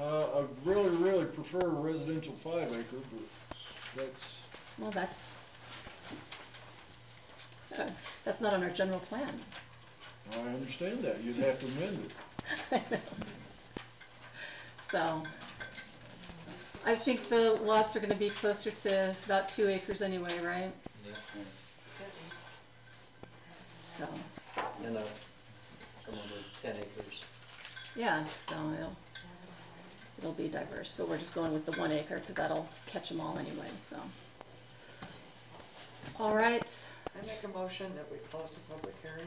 Uh, prefer residential five acre, but that's, Well, that's, Uh, that's not on our general plan. I understand that, you'd have to amend it. So, I think the lots are gonna be closer to about two acres anyway, right? So, And, uh, some of them are ten acres. yeah, so it'll, it'll be diverse, but we're just going with the one acre, cause that'll catch them all anyway, so. All right, I make a motion that we close the public hearing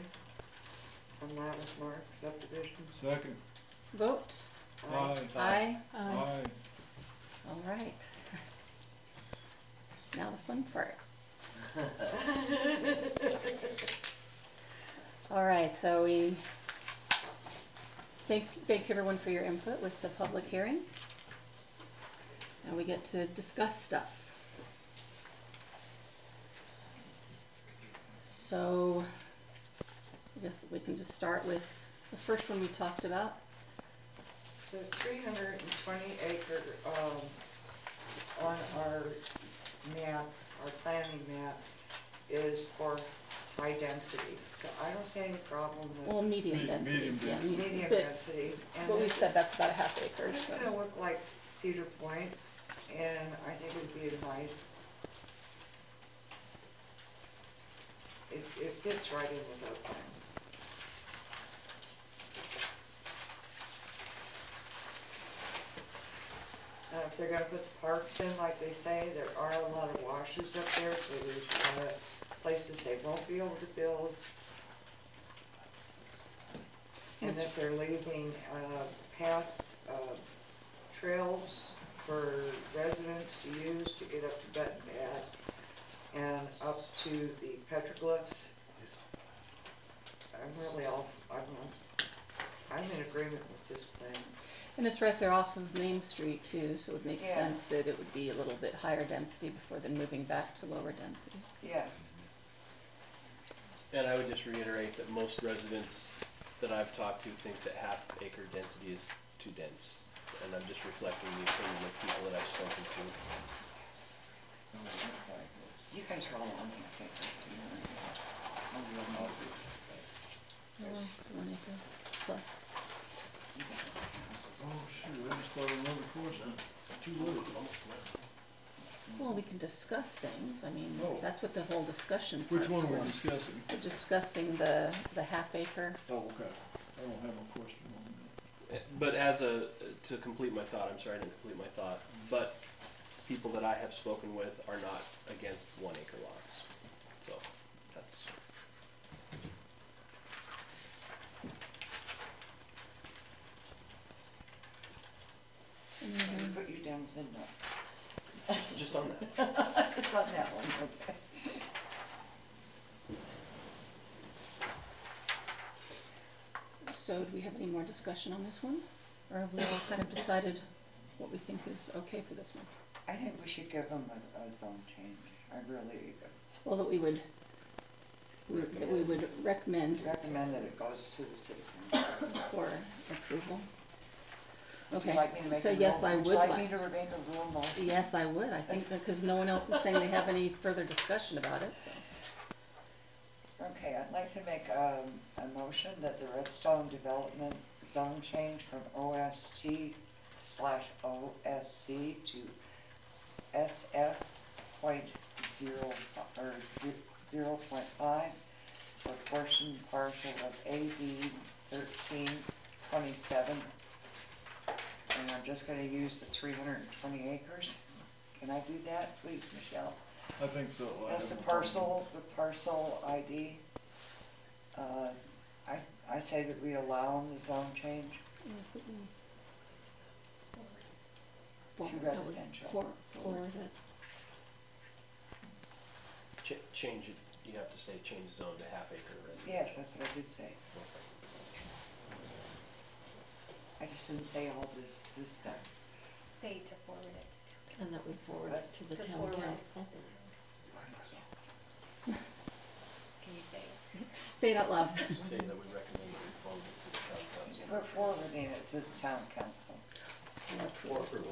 on Lattice Mark subdivisions. Second, vote, aye, aye, aye. all right. Now the fun part. All right, so we thank, thank everyone for your input with the public hearing. Now we get to discuss stuff. So I guess we can just start with the first one we talked about. The three hundred and twenty acre, um, on our map, our planning map, is for high density. So I don't see any problem Well, with medium Me- density, medium yeah. density. medium but- density. and But we this is- said that's about a half acre, It's gonna so. look like Cedar Point, and I think it'd be nice. It, it fits right in with our plan. Now, Uh, if they're gonna put the parks in, like they say, there are a lot of washes up there, so there's a lot of places they won't be able to build. And That's- that they're leaving, uh, paths, uh, trails for residents to use to get up to Benton Pass and up to the petroglyphs. I'm really all, I'm, I'm in agreement with this plan. And it's right there off of Main Street too, so it would make Yeah. sense that it would be a little bit higher density before then moving back to lower density. Yeah. And I would just reiterate that most residents that I've talked to think that half acre density is too dense. And I'm just reflecting the opinion of people that I've spoken to. You guys are all on the okay, do you know? Oh, One acre plus. you guys are all houses. Oh, shoot, I just thought of another question. Too late. Well, we can discuss things, I mean, Oh. that's what the whole discussion part's Which one are for. we discussing? We're discussing the, the half acre, Oh, okay, I don't have a question on that. Eh, But as a, to complete my thought, I'm sorry I didn't complete my thought, but people that I have spoken with are not against one acre lots. So that's, Let Mm-hmm. me Put you down as a no. just on that. It's not that one, okay. so do we have any more discussion on this one? Or have we all kind of decided what we think is okay for this one? I think we should give them a, a zone change. I really Well, that we would, we- that we would recommend recommend that it goes to the city council. for approval. Would you Okay, like me to make so a yes, rule- I would Would you like like, me to remain a rule motion? yes, I would, I think, because no one else is saying they have any further discussion about it, so. Okay, I'd like to make, um, a motion that the Redstone Development Zone change from OST slash OSC to SF point zero, fi- or ze- zero point five for portion partial of AB thirteen twenty-seven. And I'm just gonna use the three hundred and twenty acres. Can I do that, please, Michelle? I think so. I That's have the no problem. parcel, the parcel ID. Uh, I, I say that we allow them the zone change Forward, to I would- residential. for- forward it. Ch- change it, you have to say change zone to half acre Yes, residential. that's what I did say. I just didn't say all this, this stuff. They to forward it. And that we forward it to the To town forward it. council. Can you say it? Say it out loud. Say that we recommend that we forward it to the town council. We're forwarding it to the town council. For approval.